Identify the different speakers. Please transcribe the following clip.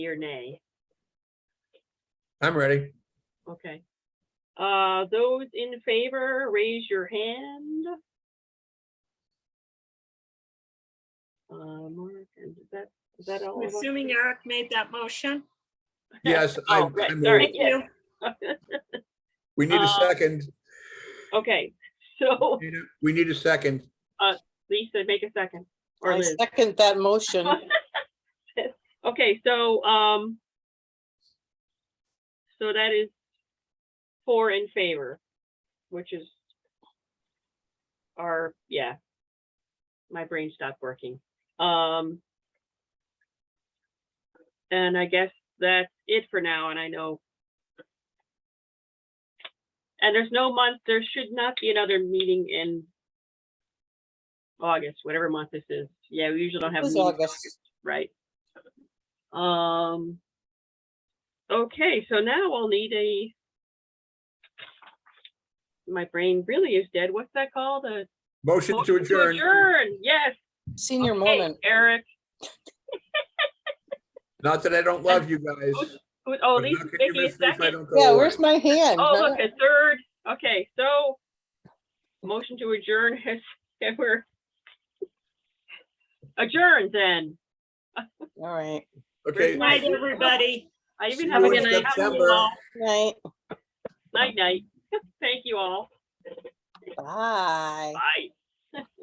Speaker 1: or nay?
Speaker 2: I'm ready.
Speaker 1: Okay. Uh, those in favor, raise your hand. Uh, Mark, and is that, is that all?
Speaker 3: I'm
Speaker 1: of us?
Speaker 3: assuming Eric made that motion.
Speaker 2: Yes, I,
Speaker 1: Oh, right,
Speaker 2: I
Speaker 1: sorry.
Speaker 2: move.
Speaker 3: Thank you.
Speaker 2: we need a
Speaker 1: Uh,
Speaker 2: second.
Speaker 1: Okay, so
Speaker 2: We need a second.
Speaker 1: Lisa, make a second. Or
Speaker 4: I
Speaker 1: Liz.
Speaker 4: second that motion.
Speaker 1: Okay, so, um, so that is four in favor, which is our, yeah. My brain stopped working. Um, and I guess that's it for now, and I know. And there's no month, there should not be another meeting in August, whatever month this is. Yeah, we usually don't have.
Speaker 4: It's
Speaker 1: meetings in
Speaker 4: August.
Speaker 1: Right. Um, okay, so now I'll need a, my brain really is dead. What's that called? A
Speaker 2: Motion to
Speaker 1: motion
Speaker 2: adjourn.
Speaker 1: Adjourn, yes.
Speaker 4: Senior
Speaker 1: Okay,
Speaker 4: moment.
Speaker 1: Eric,
Speaker 2: Not that I don't love you guys.
Speaker 1: who- oh,
Speaker 2: but
Speaker 1: Lisa's
Speaker 2: how can you
Speaker 1: making a
Speaker 2: miss me if I
Speaker 1: second.
Speaker 2: don't go
Speaker 4: Yeah,
Speaker 2: away?
Speaker 4: where's my hand?
Speaker 1: Oh, look, a third. Okay, so motion to adjourn has, that we're adjourned then.
Speaker 4: All right.
Speaker 2: Okay,
Speaker 1: Good
Speaker 3: Night, everybody.
Speaker 1: I even
Speaker 2: See
Speaker 1: have a
Speaker 2: you in
Speaker 1: good night.
Speaker 2: September.
Speaker 4: Night.
Speaker 1: Night, night. Thank you all.
Speaker 4: Bye.
Speaker 1: Bye.